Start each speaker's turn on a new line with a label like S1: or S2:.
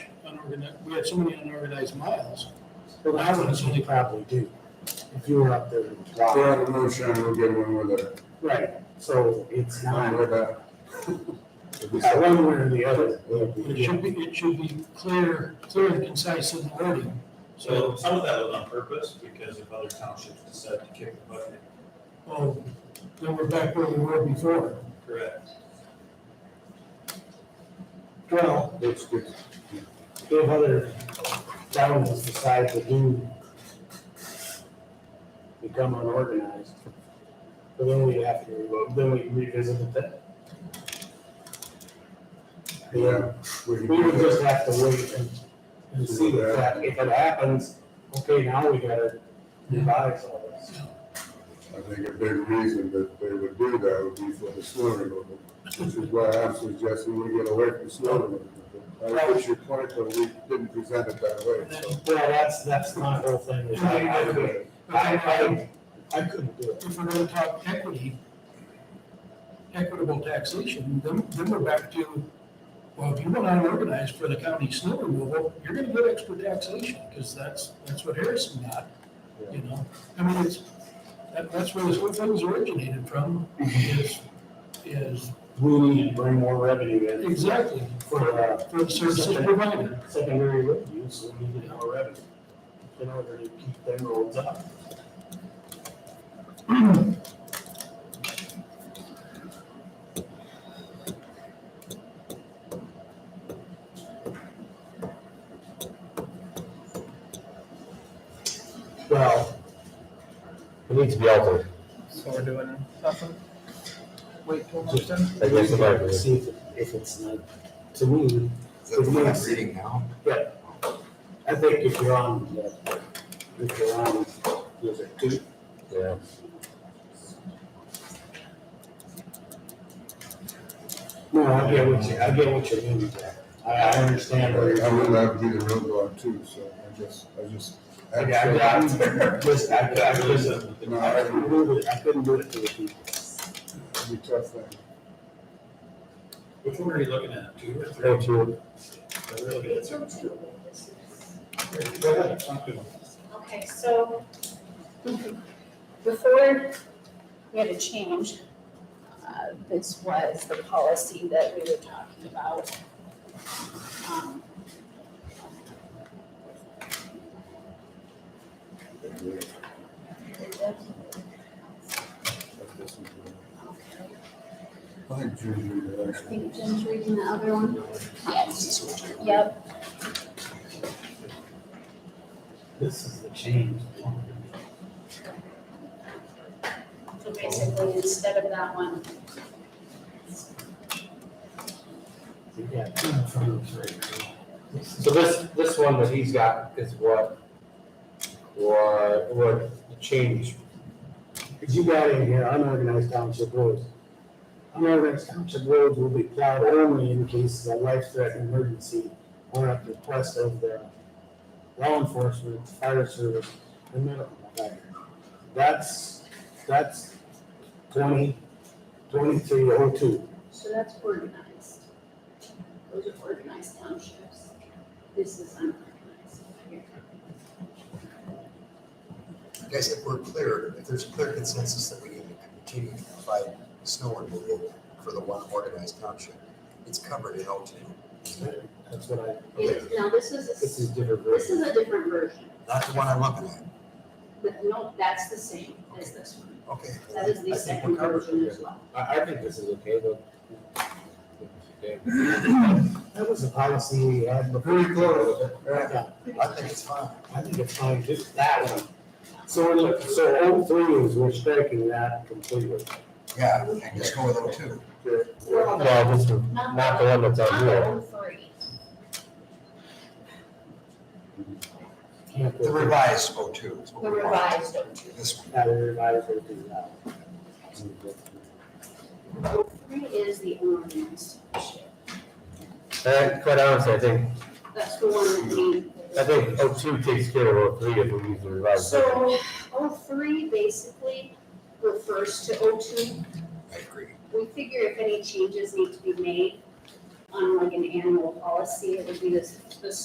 S1: unorganized, we had so many unorganized miles.
S2: Well, I would assume they probably do, if you were up there. in July.
S3: We're out of motion, we'll get one with it.
S2: Right, so it's
S3: One
S2: not,
S3: with that.
S2: yeah, one way or the other.
S3: uh,
S1: But it should be, it should be clear, clear and concise in the wording. So,
S4: So some of that was on purpose because if other townships decide to kick the bucket.
S1: well, then we're back where we were before.
S4: Correct.
S2: Well,
S3: Looks good.
S2: if other governments decide to do, become unorganized, but then we have to, revoke- then we revisit that.
S3: Yeah. can
S2: We
S3: do
S2: would
S3: that.
S2: just have to wait and, and see if that, if it happens, okay, now we gotta revise all this.
S3: I think a big reason that they would do that would be for the snow removal, which is why I'm suggesting we get away from snow removal. I wish your point, but we didn't present it that way, so.
S2: Well, that's, that's my whole thing, is I, I couldn't, I, I, I couldn't do it.
S1: If we're gonna talk equity, equitable taxation, then, then we're back to, well, if you want unorganized for the county snow removal, you're gonna get extra taxation, because that's, that's what Harrison got, you know? I mean, it's, that, that's where this whole thing's originated from, is, is,
S2: We need to bring more revenue in.
S1: exactly,
S2: for uh,
S1: for the services provided.
S2: secondary road use, we need to have a revenue in order to keep them roads up. Well,
S5: It needs to be altered.
S6: So we're doing nothing? Wait till
S2: next
S6: time?
S5: I guess the
S2: to see if, if it's not, to me, to me, it's-
S7: reading now?
S2: I think if you're on, uh, if you're on, was it two?
S5: Yeah.
S2: No, I get what you, I get what you're doing, Jack. I, I understand where
S3: I
S2: you're
S3: would
S2: coming
S3: have to be the roadblock too, so I just, I just.
S2: Yeah, I got from. Just, I, I couldn't,
S3: No,
S2: I
S3: I-
S2: couldn't do it, I couldn't do it to the people.
S3: it'd be tough thing.
S4: Which one are you looking at? Two or three?
S5: Thank you.
S4: I really did. Go ahead, talk to them.
S8: Okay, so before we had a change, uh, this was the policy that we were talking about. Um, okay.
S3: I think Jim's reading it,
S8: I
S3: actually.
S8: think Jim's reading the other one. Yes, yep,
S2: This is the change.
S8: so basically instead of that one,
S2: You got two in front of us right now.
S5: So this, this one that he's got is what, what, what changed.
S2: Cause you got in here unorganized township roads. Unorganized township roads will be plowed only in cases of life-threatening emergency or at the request of the law enforcement, fire service, and medical provider. That's, that's twenty, twenty-three oh two.
S8: so that's organized. Those are organized townships. This is unorganized here.
S7: Guys, if we're clear, if there's clear consensus that we need to continue to provide snow removal for the one organized township, it's covered in O two.
S2: That's what I,
S8: It- Now, this is,
S2: this
S8: a-
S2: is different
S8: this
S2: version.
S8: is a different version.
S7: Not the one I'm looking at.
S8: But no, that's the same as this one.
S7: Okay.
S8: That is the
S7: I think we're
S8: second
S7: covered.
S8: version as well.
S5: I, I think this is okay, but.
S2: That was a policy we had before.
S3: Very close.
S7: Yeah,
S2: Yeah,
S7: I think it's fine.
S2: I think it's fine, just that one. So, look, so O three is, we're striking that completely.
S7: Yeah, and just go with O two.
S5: No, this is
S8: Not
S5: not the one that's on here.
S8: Not the three.
S2: Can't
S7: The
S2: go-
S7: revised O two. is what
S8: The
S7: we want.
S8: revised O two.
S7: This one.
S2: Not everybody's gonna do that.
S8: O three is the ordinance.
S5: And Uh, quite honestly, I think,
S8: That's the one that we.
S5: I think O two takes care of O three if we use the revised. version.
S8: So O three basically refers to O two.
S7: I agree.
S8: We figure if any changes need to be made on like an annual policy, it would be this, this